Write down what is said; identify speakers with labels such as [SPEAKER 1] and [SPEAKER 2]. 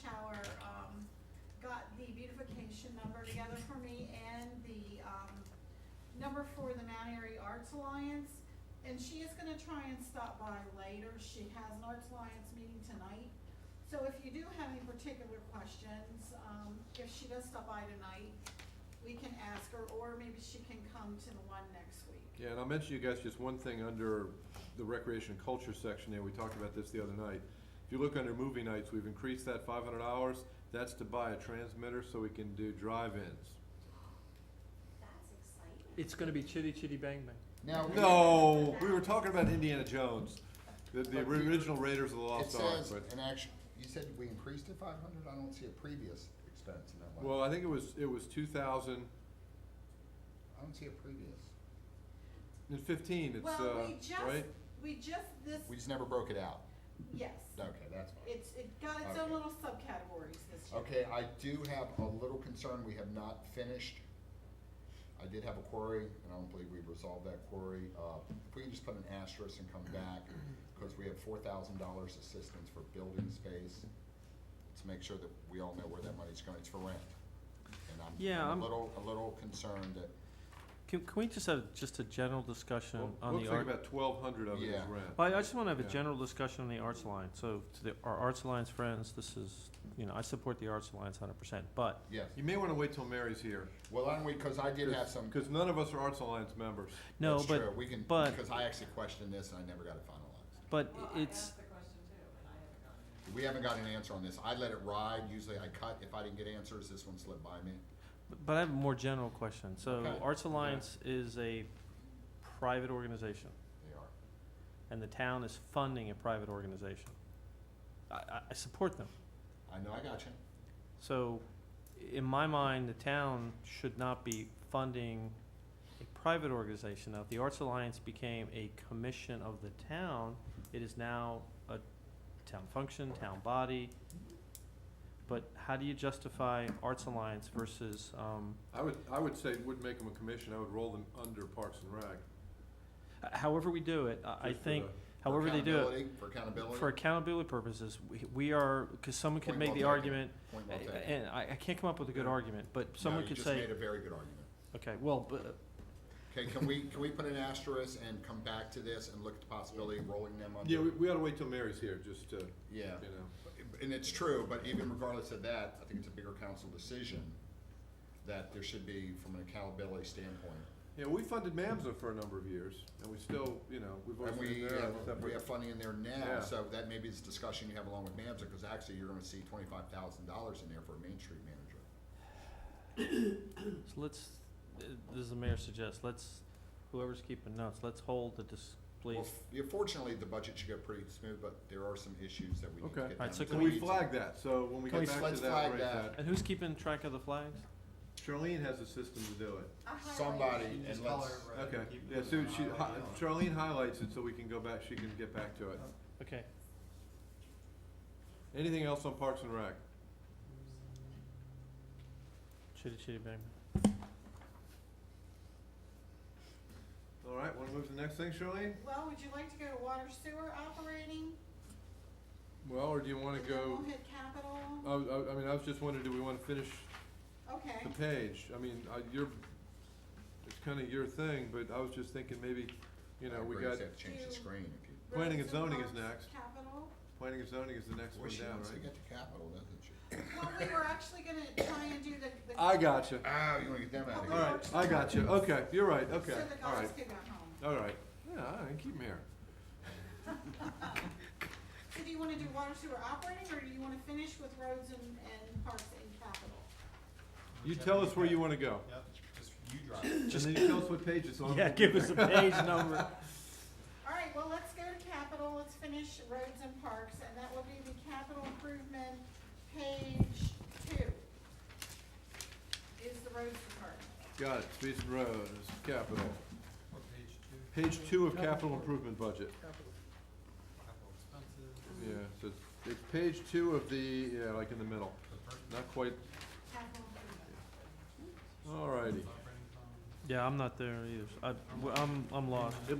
[SPEAKER 1] Shower, um, got the beautification number together for me and the, um, number for the Mount Airy Arts Alliance. And she is gonna try and stop by later. She has an Arts Alliance meeting tonight. So if you do have any particular questions, um, if she does stop by tonight, we can ask her, or maybe she can come to the one next week.
[SPEAKER 2] Yeah, and I'll mention you guys just one thing under the recreation and culture section there, we talked about this the other night. If you look under movie nights, we've increased that five hundred hours, that's to buy a transmitter so we can do drive-ins.
[SPEAKER 3] That's exciting.
[SPEAKER 4] It's gonna be chitty chitty bang bang.
[SPEAKER 5] Now,
[SPEAKER 2] No, we were talking about Indiana Jones, the, the
[SPEAKER 5] But we-
[SPEAKER 2] original Raiders of the
[SPEAKER 5] it
[SPEAKER 2] Lost Ark,
[SPEAKER 5] says,
[SPEAKER 2] but,
[SPEAKER 5] an action, you said we increased to five hundred? I don't see a previous expense in that line.
[SPEAKER 2] well, I think it was, it was two thousand
[SPEAKER 5] I don't see a previous.
[SPEAKER 2] and fifteen, it's,
[SPEAKER 1] Well, we
[SPEAKER 2] uh,
[SPEAKER 1] just,
[SPEAKER 2] right?
[SPEAKER 1] we just, this,
[SPEAKER 5] We just never broke it out.
[SPEAKER 1] yes.
[SPEAKER 5] Okay, that's fine.
[SPEAKER 1] It's, it got its own
[SPEAKER 5] Okay.
[SPEAKER 1] little subcategories this year.
[SPEAKER 5] Okay, I do have a little concern, we have not finished. I did have a query, and I don't believe we've resolved that query. Uh, If we can just put an asterisk and come back, because we have four thousand dollars assistance for building space, to make sure that we all know where that money's going, it's for rent. And
[SPEAKER 4] Yeah,
[SPEAKER 5] I'm
[SPEAKER 4] I'm-
[SPEAKER 5] a little, a little concerned that,
[SPEAKER 4] Can, can we just have just a general
[SPEAKER 2] Well,
[SPEAKER 4] discussion on
[SPEAKER 2] Looks
[SPEAKER 4] the
[SPEAKER 2] like
[SPEAKER 4] art?
[SPEAKER 2] about twelve hundred of it is
[SPEAKER 5] Yeah.
[SPEAKER 2] rent.
[SPEAKER 4] Well, I just wanna have a
[SPEAKER 2] Yeah.
[SPEAKER 4] general discussion on the Arts Alliance, so to the, our Arts Alliance friends, this is, you know, I support the Arts Alliance hundred percent, but,
[SPEAKER 5] yes.
[SPEAKER 2] You may wanna wait till Mary's here,
[SPEAKER 5] Well, I'm, because I did have some.
[SPEAKER 2] cause none of us are Arts Alliance members.
[SPEAKER 4] no,
[SPEAKER 5] That's true.
[SPEAKER 4] but,
[SPEAKER 5] We can,
[SPEAKER 4] but-
[SPEAKER 5] because I actually questioned this, and I never got it finalized.
[SPEAKER 4] but
[SPEAKER 6] Well, I
[SPEAKER 4] it's,
[SPEAKER 6] asked the question too, and I haven't gotten it.
[SPEAKER 5] We haven't got an answer on this. I let it ride, usually I cut, if I didn't get answers, this one slipped by me.
[SPEAKER 4] but I have a more general question. So
[SPEAKER 5] Okay.
[SPEAKER 4] Arts Alliance is a private organization,
[SPEAKER 5] They are.
[SPEAKER 4] and the town is funding a private organization. I, I, I support them.
[SPEAKER 5] I know, I got you.
[SPEAKER 4] So, in my mind, the town should not be funding a private organization. Now, if the Arts Alliance became a commission of the town, it is now a town function, town body. But how do you justify Arts Alliance versus, um,
[SPEAKER 2] I would, I would say, wouldn't make them a commission, I would roll them under Parks and Rec.
[SPEAKER 4] however we do it, I, I
[SPEAKER 2] Just for
[SPEAKER 4] think,
[SPEAKER 2] the-
[SPEAKER 5] For
[SPEAKER 4] however they do it.
[SPEAKER 5] accountability- For accountability.
[SPEAKER 4] For accountability purposes, we, we are, because someone could
[SPEAKER 5] Point
[SPEAKER 4] make
[SPEAKER 5] well
[SPEAKER 4] the
[SPEAKER 5] taken.
[SPEAKER 4] argument,
[SPEAKER 5] Point well taken.
[SPEAKER 4] and I, I can't come up with a good argument, but someone
[SPEAKER 5] No,
[SPEAKER 4] could
[SPEAKER 5] You just made
[SPEAKER 4] say,
[SPEAKER 5] a very good argument.
[SPEAKER 4] okay, well, but,
[SPEAKER 5] Okay, can we, can we put an asterisk and come back to this and look at the possibility of rolling them under?
[SPEAKER 2] Yeah, we, we ought to wait till Mary's here, just to, you
[SPEAKER 5] Yeah.
[SPEAKER 2] know.
[SPEAKER 5] And it's true, but even regardless of that, I think it's a bigger council decision that there should be, from an accountability standpoint,
[SPEAKER 2] Yeah, we funded MAMSA for a number of years, and we still, you know, we've always
[SPEAKER 5] And we,
[SPEAKER 2] been there. on a
[SPEAKER 5] have- we
[SPEAKER 2] separate-
[SPEAKER 5] have funding in there now,
[SPEAKER 2] Yeah.
[SPEAKER 5] so that maybe is a discussion you have along with MAMSA, because actually you're gonna see twenty-five thousand dollars in there for a Main Street manager.
[SPEAKER 4] So let's, uh, this is the mayor suggests, let's, whoever's keeping notes, let's hold the dis,
[SPEAKER 5] Well,
[SPEAKER 4] please.
[SPEAKER 5] yeah, fortunately, the budget should go pretty smooth, but there are some issues that we need to
[SPEAKER 2] Okay.
[SPEAKER 5] get
[SPEAKER 4] Alright,
[SPEAKER 5] down
[SPEAKER 4] so
[SPEAKER 5] to.
[SPEAKER 2] So
[SPEAKER 4] can
[SPEAKER 2] we
[SPEAKER 4] we-
[SPEAKER 2] flagged that, so when we
[SPEAKER 5] Can
[SPEAKER 2] get
[SPEAKER 5] we-
[SPEAKER 2] back
[SPEAKER 5] let's
[SPEAKER 2] to that,
[SPEAKER 5] flag
[SPEAKER 2] we'll raise
[SPEAKER 5] that.
[SPEAKER 2] that.
[SPEAKER 4] And who's keeping track of the flags?
[SPEAKER 2] Charlene has a system to do it.
[SPEAKER 1] I highlighted
[SPEAKER 5] Somebody,
[SPEAKER 1] it.
[SPEAKER 5] and
[SPEAKER 7] Just call
[SPEAKER 5] let's,
[SPEAKER 7] it red.
[SPEAKER 2] Okay,
[SPEAKER 7] Keep
[SPEAKER 2] yeah,
[SPEAKER 7] it
[SPEAKER 2] so
[SPEAKER 7] on
[SPEAKER 2] she,
[SPEAKER 7] highlight
[SPEAKER 2] hi-
[SPEAKER 7] yellow.
[SPEAKER 2] Charlene highlights it so we can go back, she can get back to it.
[SPEAKER 4] Okay,
[SPEAKER 2] Anything else on Parks and Rec?
[SPEAKER 4] chitty chitty bang.
[SPEAKER 2] All right, wanna move to the next thing, Charlene?
[SPEAKER 1] Well, would you like to go to water sewer operating?
[SPEAKER 2] Well, or do you wanna
[SPEAKER 1] And then
[SPEAKER 2] go,
[SPEAKER 1] we'll hit
[SPEAKER 2] I,
[SPEAKER 1] capital.
[SPEAKER 2] I, I mean, I was just wondering, do we wanna finish
[SPEAKER 1] Okay.
[SPEAKER 2] the page? I mean, I, you're, it's kinda your thing, but I was just thinking maybe, you know, we
[SPEAKER 5] We're gonna
[SPEAKER 2] got,
[SPEAKER 5] have to change the screen if you.
[SPEAKER 2] Planning and
[SPEAKER 1] Roads
[SPEAKER 2] zoning is
[SPEAKER 1] parks,
[SPEAKER 2] next.
[SPEAKER 1] Capital.
[SPEAKER 2] planning and zoning is the next
[SPEAKER 5] Well,
[SPEAKER 2] one
[SPEAKER 5] she
[SPEAKER 2] down,
[SPEAKER 5] wants to
[SPEAKER 2] right?
[SPEAKER 5] get to capital, doesn't she?
[SPEAKER 1] Well, we were actually gonna try and do the. the-
[SPEAKER 2] I gotcha.
[SPEAKER 5] Oh, you wanna get them out of
[SPEAKER 2] All
[SPEAKER 5] here?
[SPEAKER 2] right, I got you. Okay, you're right. Okay,
[SPEAKER 1] So the
[SPEAKER 2] all
[SPEAKER 1] guys
[SPEAKER 2] right,
[SPEAKER 1] could go home.
[SPEAKER 2] all right. Yeah, all right, keep 'em here.
[SPEAKER 1] So do you wanna do water sewer operating, or do you wanna finish with roads and, and parks and capital?
[SPEAKER 2] You tell us where you want to go,
[SPEAKER 7] Yep, just you drive it.
[SPEAKER 2] and then you tell us what page it's on.
[SPEAKER 4] Yeah, give us a page number.
[SPEAKER 1] All right, well, let's go to capital, let's finish roads and parks, and that will be the capital improvement, page two. Is the roads department.
[SPEAKER 2] Got it. Streets and roads, capital.
[SPEAKER 7] What page two?
[SPEAKER 2] Page two of capital improvement budget.
[SPEAKER 7] Capital expenses.
[SPEAKER 2] Yeah, so it's- it's page two of the, yeah, like in the middle.
[SPEAKER 7] The per-
[SPEAKER 2] Not quite,
[SPEAKER 1] capital improvement.
[SPEAKER 2] all righty.
[SPEAKER 7] Operating fund.
[SPEAKER 4] Yeah, I'm not there either. I, am I'm lost.